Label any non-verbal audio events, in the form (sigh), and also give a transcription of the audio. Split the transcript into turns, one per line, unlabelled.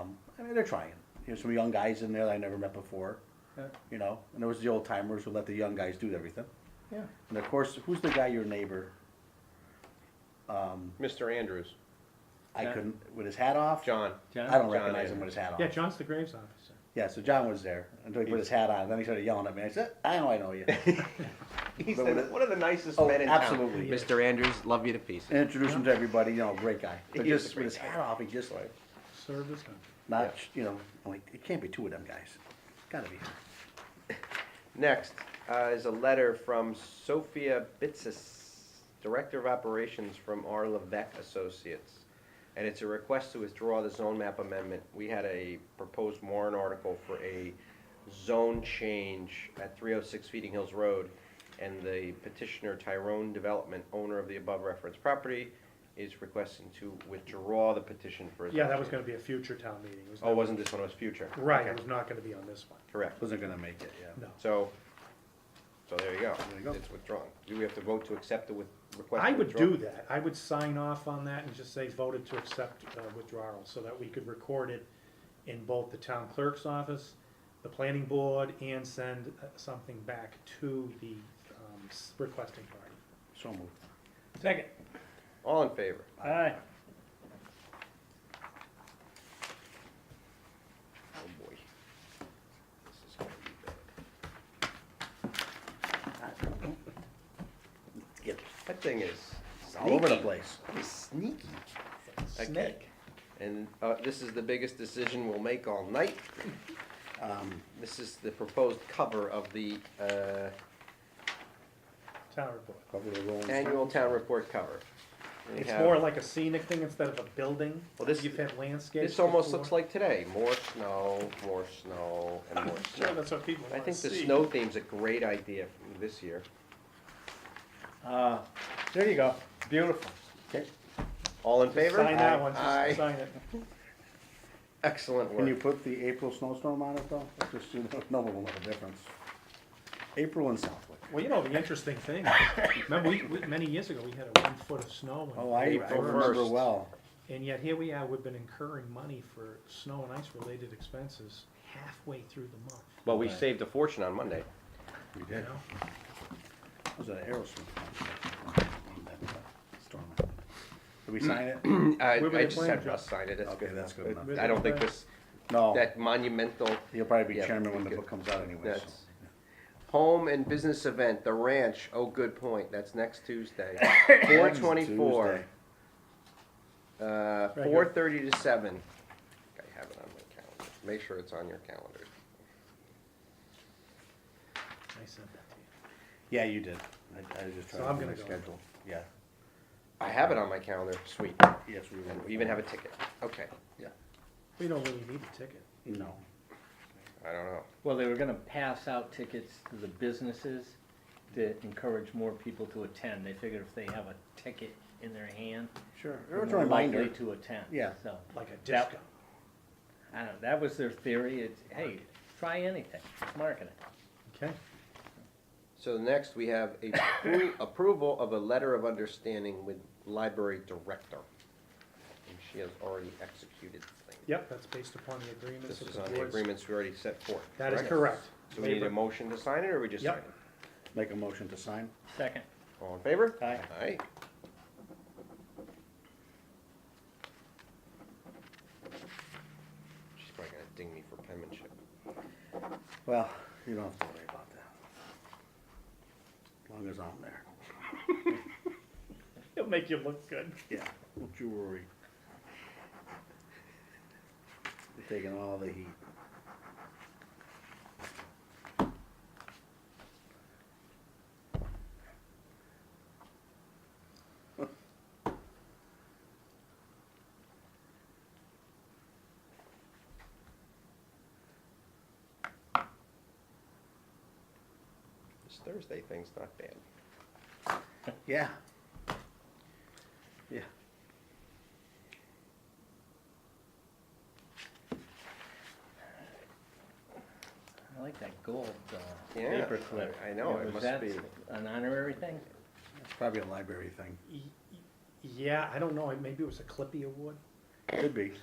Um, I mean, they're trying. There's some young guys in there that I never met before,
Yeah.
you know, and there was the old timers who let the young guys do everything.
Yeah.
And of course, who's the guy, your neighbor? Um,
Mr. Andrews,
I
Yeah.
couldn't, with his hat off?
John.
John?
I don't
John
recognize
Andrews.
him with his hat on.
Yeah, John's the Graves officer.
Yeah, so John was there until he put his hat on. Then he started yelling at me. I said, I know I know
(laughs)
you.
He's
But
the-
with-
one of the nicest
Oh,
men in
uh,
absolutely.
town. Mr. Andrews, love you to pieces.
And introduced him to everybody, you know, great guy. But
He is a
just
great
with his
guy.
hat off, he just like,
Served his country.
not,
Yeah.
you know, I'm like, it can't be two of them guys. Gotta be.
Next uh, is a letter from Sophia Bitsis, Director of Operations from R. Levesque Associates. And it's a request to withdraw the zone map amendment. We had a proposed warrant article for a zone change at 306 Feeding Hills Road. And the petitioner Tyrone Development, owner of the above referenced property, is requesting to withdraw the petition for a zone
Yeah, that was
change.
gonna be a future town meeting. It was
Oh,
not-
wasn't this one, it was future?
Right, it
Okay,
was not gonna be on this one.
Correct.
Wasn't gonna make it, yeah.
No.
So, so there you go.
There you go.
It's withdrawn. Do we have to vote to accept the with, request?
I
to
would
withdraw?
do that. I would sign off on that and just say voted to accept uh, withdrawal so that we could record it in both the town clerk's office, the planning board, and send uh, something back to the um, s- requesting party.
So moved.
Second.
All in favor?
Aye.
Oh, boy. This is gonna be bad.
Get
That thing is
it's all over the
sneaky.
place.
That is sneaky. Okay.
Snake.
And, uh, this is the biggest decision we'll make all night.
Um,
This is the proposed cover of the, uh,
Town report.
cover the rolls.
annual town report cover. We
It's
have-
more like a scenic thing instead of a building.
Well, this-
You've had landscapes.
This almost
before.
looks like today. More snow, more snow, and
(laughs)
more
Sure,
snow.
that's what people
I
wanna
think the
see.
snow theme's a great idea from this year.
Uh,
Ah,
there you go.
Beautiful. All in favor?
Sign that one,
Aye.
just sign it.
Excellent
Can you
work.
put the April snowstorm on it though? Just so no one will know (laughs) the difference. April in Southwick.
Well, you know, the interesting
(laughs)
thing, remember, we, we, many years ago, we had a one foot of snow. in
Oh, I, I
April
remember
first.
well.
And yet here we are, we've been incurring money for snow and ice related expenses halfway through the month,
Well, we saved a fortune on Monday.
We
you
did.
know?
It was an Aerosmith. Storm. Did we sign
(clears throat)
it?
Mm, I,
Where were
I
they
just
playing,
had
Joe?
Russ sign it, that's
Okay,
good.
that's good enough.
Where
I
they
don't think
playing?
this,
No,
that monumental,
you'll probably be
Yeah,
chairman when the
good.
book comes out anyway, so.
That's- home and business event, the ranch, oh, good point, that's (coughs) next Tuesday. Four
Next
twenty-four,
Tuesday.
uh,
here.
four thirty to seven. I think I have it on my calendar, make sure it's on your calendar.
I sent that
Yeah, you did. I, I was just
So
trying to.
I'm
do
gonna
my
go.
Schedule, yeah,
I have it on my calendar, sweet,
yes, we
and
will.
we even have a ticket, okay,
Yeah,
to you. We don't really need a ticket.
no.
I don't know.
Well, they were gonna pass out tickets to the businesses to encourage more people to attend. They figured if they have a ticket in their hand,
Sure.
they're
It's a
more likely
reminder.
to attend.
Yeah.
So,
Like a
That-
discount.
I don't know, that was their theory. It's, hey, try anything, it's marketing.
Okay.
So next, we have a appro- (coughs) approval of a letter of understanding with library director. And she has already executed the thing.
Yep, that's based upon the agreements
This
of
is
the
on the
boards.
agreements we already set forth.
That is correct.
So we need a
Labor-
motion to sign it, or we just sign
Yep.
it?
Make a motion to sign.
Second,
All in favor?
Aye.
Aye. She's probably gonna ding me for penmanship.
Well, you don't have to worry about that. As long as I'm there.
It'll make you look good.
Yeah, don't you worry. You're taking all the heat.
This Thursday thing's not bad.
Yeah. Yeah.
I like that gold, uh,
Yeah,
paperclip.
I- I know, it
Was
must
that
be-
An honorary thing?
It's probably a library thing.
Yeah, I don't know, maybe it was a Clippy award?
Could be.